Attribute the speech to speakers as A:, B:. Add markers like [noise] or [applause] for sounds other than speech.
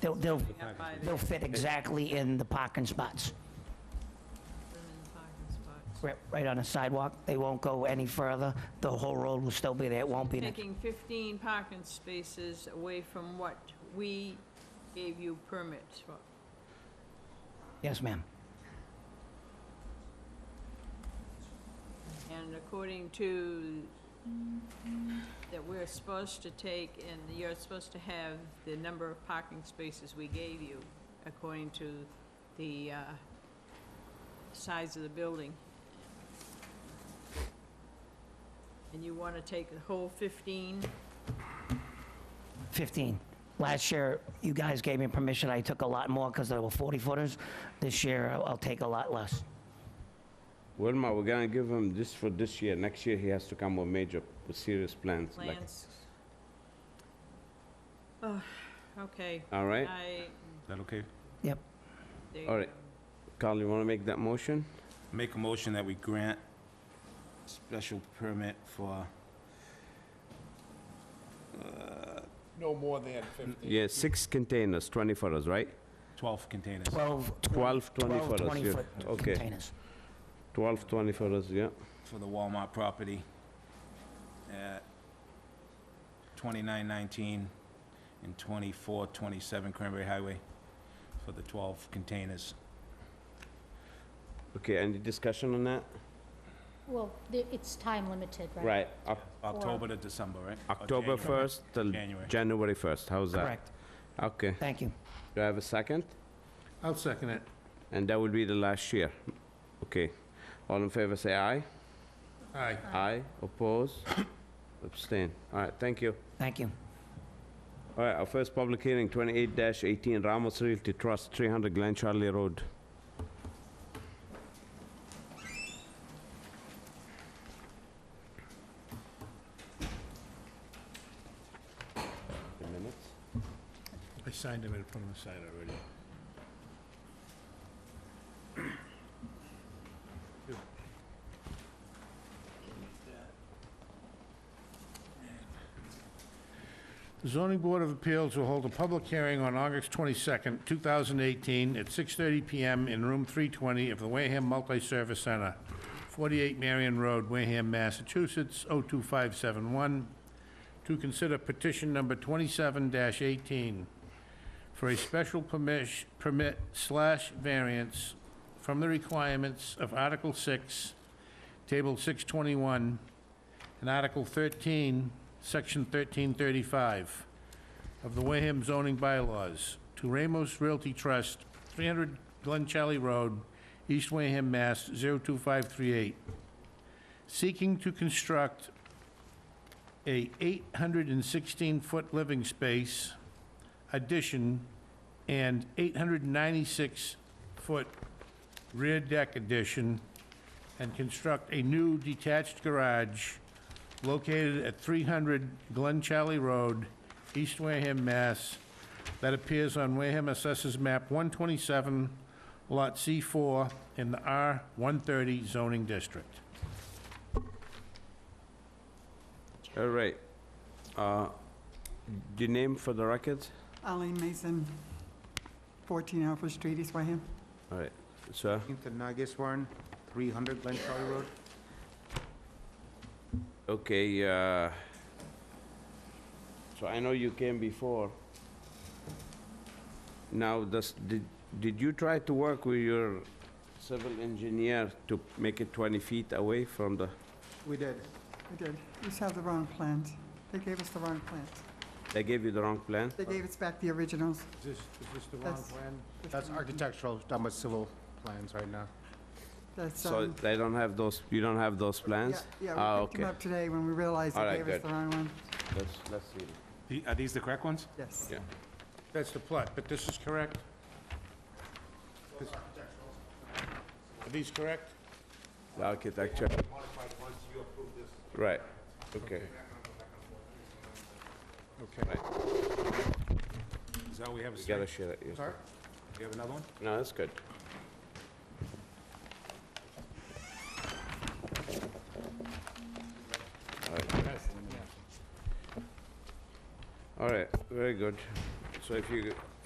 A: They'll, they'll,
B: Out by the
A: they'll fit exactly in the parking spots,
B: women's parking spots.
A: right, right on the sidewalk. They won't go any further. The whole road will still be there. It won't be, an-
B: Taking 15 parking spaces away from what we gave you permits for.
A: yes, ma'am.
B: And according to, that we're supposed to take, and you're supposed to have the number of parking spaces we gave you, according to the uh, size of the building. And you want to take the whole 15?
A: 15. Last year, you guys gave me permission, I took a lot more because there were 40 footers. This year, I'll- I'll take a lot less.
C: Wilma, we're gonna give him this for this year. Next year, he has to come with major, with serious plans. like-
B: Lance? Oh, okay.
C: All right?
B: I,
D: Is that okay?
A: Yep.
B: there you
C: All right.
B: go.
C: Carl, you wanna make that motion?
D: Make a motion that we grant special permit for,
E: No more than 50.
C: Yeah, six containers, 20 footers, right?
D: 12 containers.
A: 12,
C: 12, 20
A: 12
C: footers, yeah.
A: 20-foot
C: Okay.
A: containers.
C: 12, 20 footers, yeah.
D: for the Walmart property at 2919 and 2427 Cranberry Highway for the 12 containers.
C: Okay, any discussion on that?
F: Well, the- it's time limited, right?
C: Right, Oc-
D: October to December, right? Or
C: October
D: January.
C: 1st till
D: January.
C: January 1st, how's that?
A: Correct.
C: Okay,
A: Thank you.
C: do I have a second?
E: I'll second it.
C: And that will be the last year. Okay, all in favor, say aye.
E: Aye.
C: Aye, oppose, [coughs] abstain. All right, thank you.
A: Thank you.
C: All right, our first public hearing, 28-18 Ramos Realty Trust, 300 Glen Charlie Road. The minutes?
E: I signed him in front of the sign already. The zoning board of appeals will hold a public hearing on August 22nd, 2018, at 6:30 PM in room 320 of the Wareham Multi-Service Center, 48 Marion Road, Wareham, Massachusetts, 02571, to consider petition number 27-18 for a special permish- permit slash variance from the requirements of Article 6, Table 621, and Article 13, Section 1335 of the Wareham zoning bylaws to Ramos Realty Trust, 300 Glen Charlie Road, East Wareham, Mass. 02538, seeking to construct a 816-foot living space addition and 896-foot rear deck addition, and construct a new detached garage located at 300 Glen Charlie Road, East Wareham, Mass., that appears on Wareham Assessors Map 127, Lot C4, in the R130 zoning district.
C: All right. Uh, The name for the record?
G: Eileen Mason, 14 Alpha Street, East Wareham.
C: All right, sir?
H: Into Nageswaran, 300 Glen Charlie Road.
C: Okay, uh, so I know you came before. Now, does, did, did you try to work with your civil engineer to make it 20 feet away from the,
H: We did.
G: We did. We just have the wrong plans. They gave us the wrong plans.
C: they gave you the wrong plan?
G: They gave us back the originals.
H: Is this, is this the
G: That's-
H: plan?
G: that's
H: That's
G: wrong.
H: architectural, talking about civil plans right now.
G: That's,
C: So
G: um,
C: they don't have those, you don't have those
G: yeah,
C: plans?
G: yeah,
C: Ah,
G: we picked them
C: okay.
G: up today when we realized
C: All
G: they
C: right,
G: gave us
C: good.
G: the wrong one.
C: Let's, let's see.
D: The- Are these the correct ones?
G: Yes.
C: Yeah.
E: That's the plot, but this is correct? This- Are these correct?
C: The architecture. Right, okay.
E: Okay.
D: Is that what we have?
C: You gotta share it. yes.
E: Sorry?
D: You have another one?
C: No, that's good. All right, very good. So if you,